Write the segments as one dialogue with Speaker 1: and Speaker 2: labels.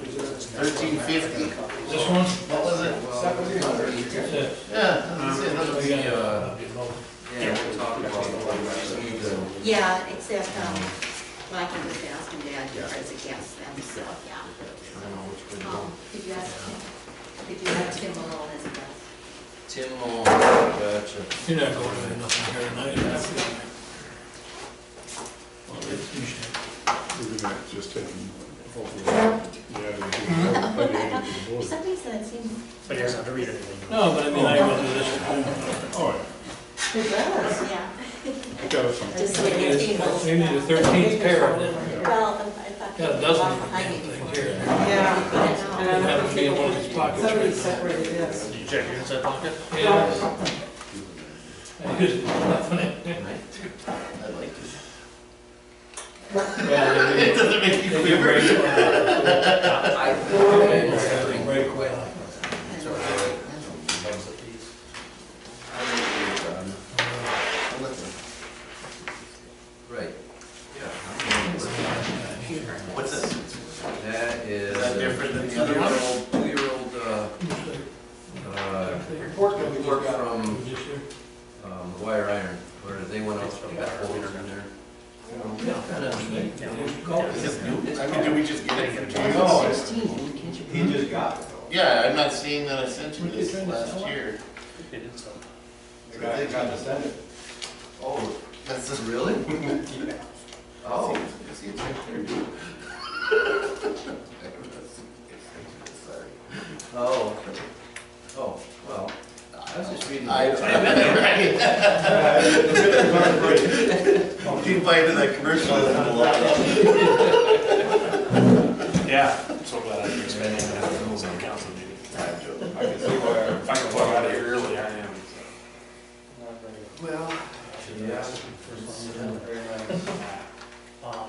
Speaker 1: thirteen fifty.
Speaker 2: This one? What was it? Yes.
Speaker 1: Yeah, that's it,
Speaker 2: Um,
Speaker 1: that's
Speaker 2: we
Speaker 1: it.
Speaker 2: got, uh,
Speaker 3: Yeah, we'll talk about the whole rest. We need to-
Speaker 4: Yeah, except, um, Mikey was asking Dad to press against them, so, yeah.
Speaker 3: I don't know which way to go.
Speaker 4: Um, Did you ask him, did you ask Tim Malone as well?
Speaker 3: Tim Long, gotcha.
Speaker 2: You're not going to do nothing here tonight. you're not feeling it. Well, it's you should.
Speaker 5: We're gonna just have them, yeah, by the end of the
Speaker 4: For
Speaker 5: board.
Speaker 4: some reason, it seemed.
Speaker 6: But he doesn't have to read anything.
Speaker 2: No, but I mean, I will do this.
Speaker 5: All right,
Speaker 4: It does. Yeah.
Speaker 5: I got us something.
Speaker 4: Just wait and see.
Speaker 2: We need the thirteenth pair of them.
Speaker 4: Well, I thought.
Speaker 2: Got a dozen of them things here.
Speaker 4: Yeah.
Speaker 2: Have to be in one of these pockets.
Speaker 7: Somebody separated this.
Speaker 6: Did you check your inside pocket?
Speaker 2: Yeah. I just- nothing in there.
Speaker 1: I like this.
Speaker 2: Yeah, they
Speaker 1: It
Speaker 2: do.
Speaker 1: doesn't make you
Speaker 2: uh, They do
Speaker 1: feel very.
Speaker 2: break it.
Speaker 3: I-
Speaker 2: They break well.
Speaker 3: Right. What's this? That is.
Speaker 1: Is that different than the other
Speaker 3: one? Two-year-old, uh, uh,
Speaker 7: Report that we
Speaker 3: report
Speaker 7: just got.
Speaker 3: from,
Speaker 2: Just here.
Speaker 3: um, Wire Iron, where they went out, they got holes in there.
Speaker 1: Did we just get it from
Speaker 5: No,
Speaker 1: James?
Speaker 5: it's- he just got it though.
Speaker 1: Yeah, I'm not seeing that I sent you this last year.
Speaker 6: He did so.
Speaker 5: The guy that got to send it.
Speaker 3: Oh,
Speaker 1: That's just.
Speaker 3: really?
Speaker 1: Oh.
Speaker 3: Oh. Oh, oh, well, I was just reading.
Speaker 1: I, I, right. You play into that commercial.
Speaker 6: Yeah, I'm so glad I didn't spend any of those on council meeting.
Speaker 5: I can see why.
Speaker 6: If I can walk out of here early, I am.
Speaker 3: Well, yeah.
Speaker 8: Um,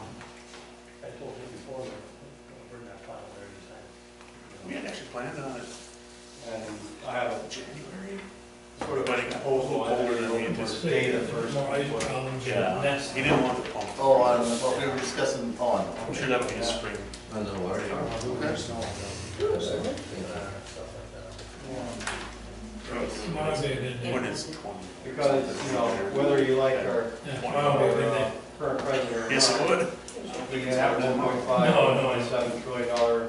Speaker 8: I told him before,
Speaker 2: uh,
Speaker 8: that we're not final there this time.
Speaker 6: We had actually planned on it. I have. January. Sort of like a whole lot older than we anticipated.
Speaker 5: Day the first.
Speaker 2: Noise problems.
Speaker 6: That's, he didn't want the pump.
Speaker 1: Oh, I don't know, we were discussing the pond.
Speaker 6: I'm sure that'll be a spring.
Speaker 3: I know, where they are.
Speaker 2: Might be a good day.
Speaker 6: When it's twenty.
Speaker 7: Because, you know, whether you like our,
Speaker 2: Yeah, might be a
Speaker 7: our
Speaker 2: good day.
Speaker 7: uh, current president or
Speaker 6: Yes, it
Speaker 7: not,
Speaker 6: would.
Speaker 7: we can have one point five,
Speaker 2: No,
Speaker 7: one
Speaker 2: no,
Speaker 7: point
Speaker 2: it's-
Speaker 7: seven trillion dollar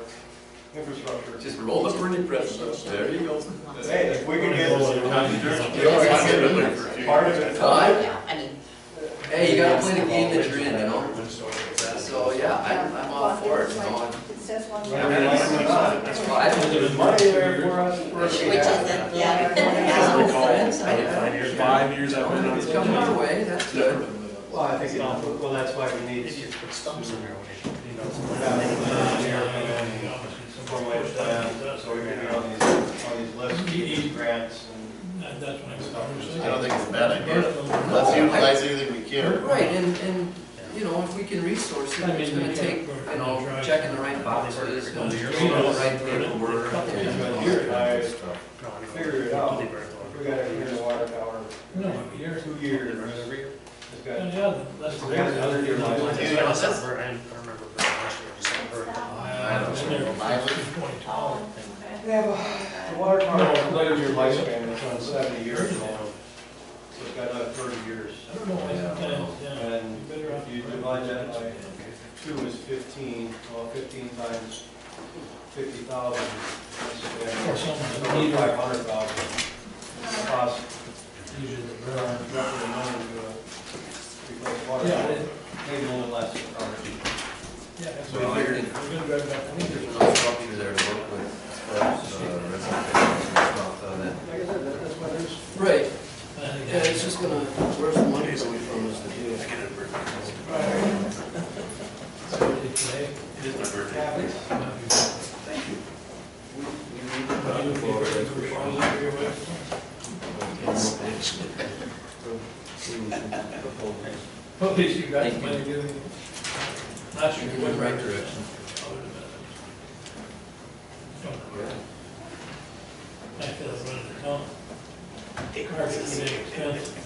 Speaker 7: infrastructure.
Speaker 3: Just roll up pretty press, there you go.
Speaker 7: Hey, if we can get part
Speaker 6: Part
Speaker 7: of it.
Speaker 3: Five?
Speaker 4: Yeah, I mean,
Speaker 3: Hey, you gotta play the game that you're in, you know? So, yeah, I'm, I'm all for it, you know?
Speaker 7: Whether we like it or not,
Speaker 3: That's why I don't
Speaker 2: There's
Speaker 7: Money
Speaker 2: money
Speaker 7: there for us. for us
Speaker 4: which
Speaker 7: to
Speaker 4: isn't,
Speaker 7: have.
Speaker 3: Yeah.
Speaker 6: Five years, five years I've been on
Speaker 3: It's coming
Speaker 6: this.
Speaker 3: our way, that's good.
Speaker 7: Well, I think, it- well, that's why we need.
Speaker 6: If you put stumps in there, when you know.
Speaker 7: Formulated plan, so we can be on these, on these lists, these grants and.
Speaker 2: That- That's when I was
Speaker 1: I don't think it's a bad idea. Let's utilize anything we can.
Speaker 3: Right, and, and, you know, if we can resource it, it's gonna take, you know, checking the right boxes, and reading the right paperwork.
Speaker 7: But
Speaker 3: and-
Speaker 7: here, I figured it out, we got it here in the water tower,
Speaker 2: No, a year.
Speaker 7: two years, it's got
Speaker 2: Yeah, yeah, that's.
Speaker 7: We got another year left.
Speaker 6: I
Speaker 1: You know, that's-
Speaker 6: remember very much, I just remember.
Speaker 2: I
Speaker 1: don't know.
Speaker 7: They have a, the water tower, the your lifespan, it's on seventy years old. So it's got another thirty years.
Speaker 2: I don't know, I sometimes, yeah.
Speaker 7: And if you divide that by two is fifteen, well, fifteen times fifty thousand,
Speaker 2: Or
Speaker 7: that's
Speaker 2: something, you need
Speaker 7: seventy-five hundred thousand. Cost
Speaker 2: usually the
Speaker 7: around
Speaker 2: burn.
Speaker 7: roughly a million to, uh, replace water,
Speaker 2: Yeah,
Speaker 7: tower.
Speaker 2: it-
Speaker 7: maybe a little less. probably.
Speaker 2: yeah, that's
Speaker 3: Well,
Speaker 2: what
Speaker 3: I
Speaker 2: I figured.
Speaker 3: think-
Speaker 2: We're gonna drive back.
Speaker 3: I think there's enough stuff here there to work with, as far as, uh, recommendations and stuff, uh, that-
Speaker 7: Like I said, that- that's why there's
Speaker 3: Right,
Speaker 2: I think
Speaker 3: yeah, it's just gonna, where's the money coming from is the deal.
Speaker 6: I get it, birthday.
Speaker 2: that's what it is today.
Speaker 6: it is my birthday.
Speaker 7: cavities.
Speaker 2: But you figure it's for fun, it's for your wife. Well, At least you got the money doing it. Last year.
Speaker 3: You're going the right direction.
Speaker 2: I feel it's running the town. Cars are getting expensive.